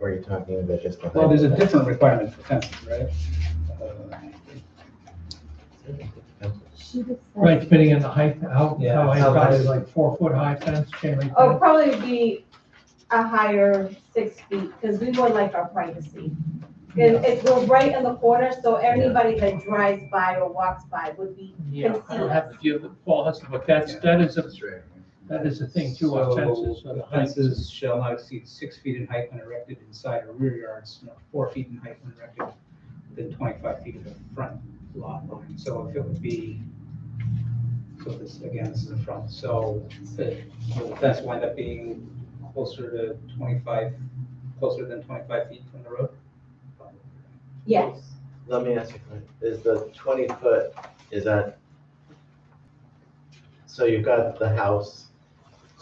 Or are you talking about just the? Well, there's a different requirement for fences, right? She just said- Right, depending on the height, how, Yeah, how high, how probably high. like four foot high fence, chain link Oh, fence. probably be a higher six feet, because we would like our privacy. And it, we're right in the corner, so everybody that drives by or walks by would be, Yeah, I don't have to deal with Paul Hudson, but that's, that is a, that is a thing too, on So, fences. on the height. Fences shall not exceed six feet in height when erected inside or rear yards, nor four feet in height when erected within twenty-five feet of the front lot line. So if it would be, so this, again, this is the front, so the the fence will end up being closer to twenty-five, closer than twenty-five feet from the road? yes. Let me ask you, a question. is the twenty foot, is that? So you've got the house,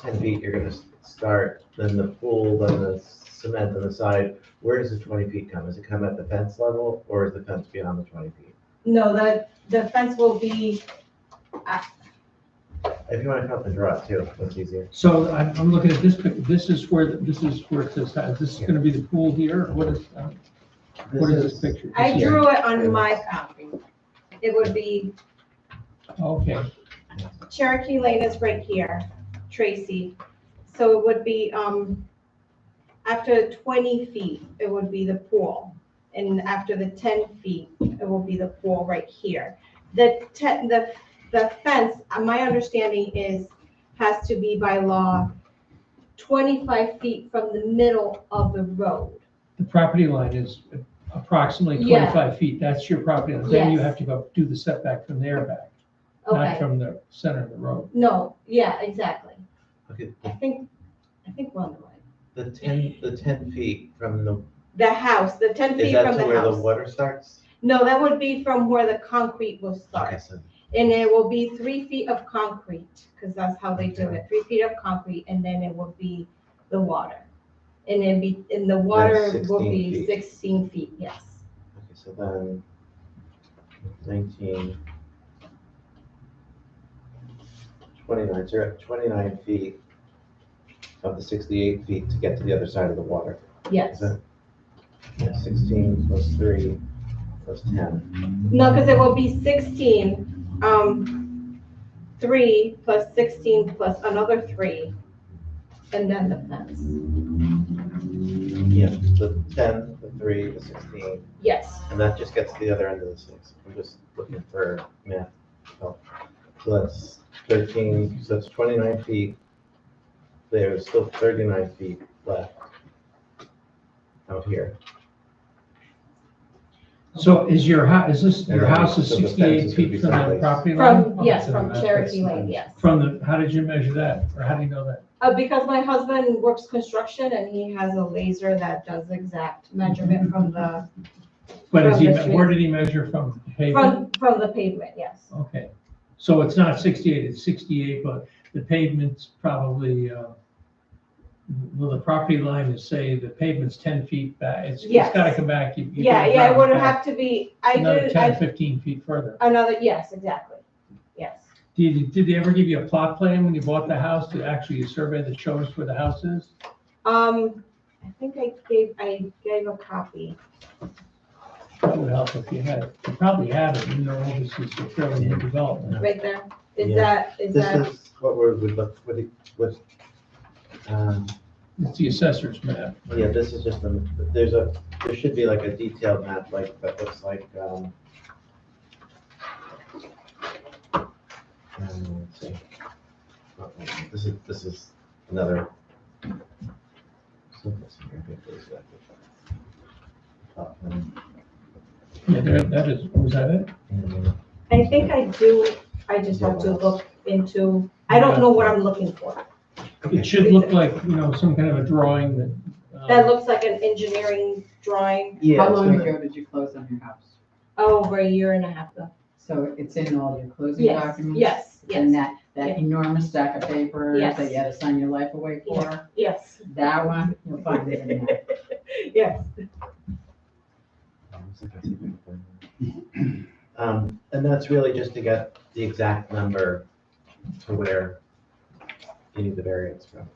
ten feet, you're gonna s- start, then the pool, then the cement on the side. Where does the twenty feet come? Does it come at the fence level or is the fence beyond the twenty feet? No, the, the fence will be, If you wanna come up and draw it too, that's easier. So I'm, I'm looking at this, pic- this is where, the- this is where it says, uh, this is gonna be the pool here, what is, uh, what is this picture? I This is- drew it on my copy. It would be Okay, Cherokee Lane is right here, Tracy. So it would be, um, after twenty feet, it would be the pool. And after the ten feet, it will be the pool right here. The ten, the, the fence, uh, my understanding is, has to be by law twenty-five feet from the middle of the road. the property line is approximately Yeah. twenty-five feet, that's your property line, then you Yes. have to go do the setback from there back, not Okay, from the center of the road. no, yeah, exactly. Okay, I think, I think we're on the the right. ten, the ten feet from the, The house, the ten is feet that from to the where the house. water starts? No, that would be from where the concrete will Okay, start. so And it will be three feet of concrete, because that's how they do it, three feet of concrete, and then it will be the water. And then be, and the water will 16 be feet. sixteen feet, yes. Okay, so then nineteen. Twenty-nine, so you're at twenty-nine feet of the sixty-eight feet to get to the other side of the water. Is Yes. that? yeah, Sixteen plus three plus ten. No, because it will be sixteen, um, three plus sixteen plus another three, and then the fence. Yeah, the ten, the three, the sixteen, Yes, and that just gets to the other end of the six. I'm just looking for math. help. So that's thirteen, so that's twenty-nine feet. There's still thirty-nine feet left out here. So is your hou- is this, your And then house is so the fence is sixty-eight gonna be feet from the sideways. property line? from, yes, from Cherokee Lane, yes. From the, how did you measure that, or how do you know that? Uh, because my husband works construction and he has a laser that does exact Mm-hmm. measurement from the, But is From he, the me- street. where did he measure from the pavement? from, from the pavement, yes. Okay, so it's not sixty-eight, it's sixty-eight, but the pavement's probably, uh, well, the property line is, say, the pavement's ten feet back, it's, it's Yes. gotta come back. you- you Yeah, gotta yeah, it drive would back have to be, I Another did, ten, I, fifteen feet further. another, yes, exactly, yes. Did, you- did they ever give you a plot plan when you bought the house, to actually survey that shows where the house is? Um, I think I gave, I gave a copy. That would help if you had it. You probably have it, even though this is a fairly new development. Right there, is Yeah. that, is This that, is what we're, we look, what, it- what, um, It's the assessor's map. Oh, yeah, this is just, a- there's a, there should be like a detailed map, like, that looks like, um, um, let's see. Oh, Uh-oh, This is, this is another. someplace in here, I think there's that. Uh, um, Yeah, there, that is, was that it? and- I think I do, I just have to look into, I don't know what I'm looking for. It should look like, you know, some kind of a drawing that. uh, That looks like an engineering drawing Yeah, How it's long gonna- ago did you close on your house? over a year and a half ago. So it's in all your closing Yes, documents? yes, And yes, that, that enormous stack of papers Yes. that you had to sign your life away for, yes, that one, you'll find it in there. yes. Um, and that's really just to get the exact number to where you need the variance from.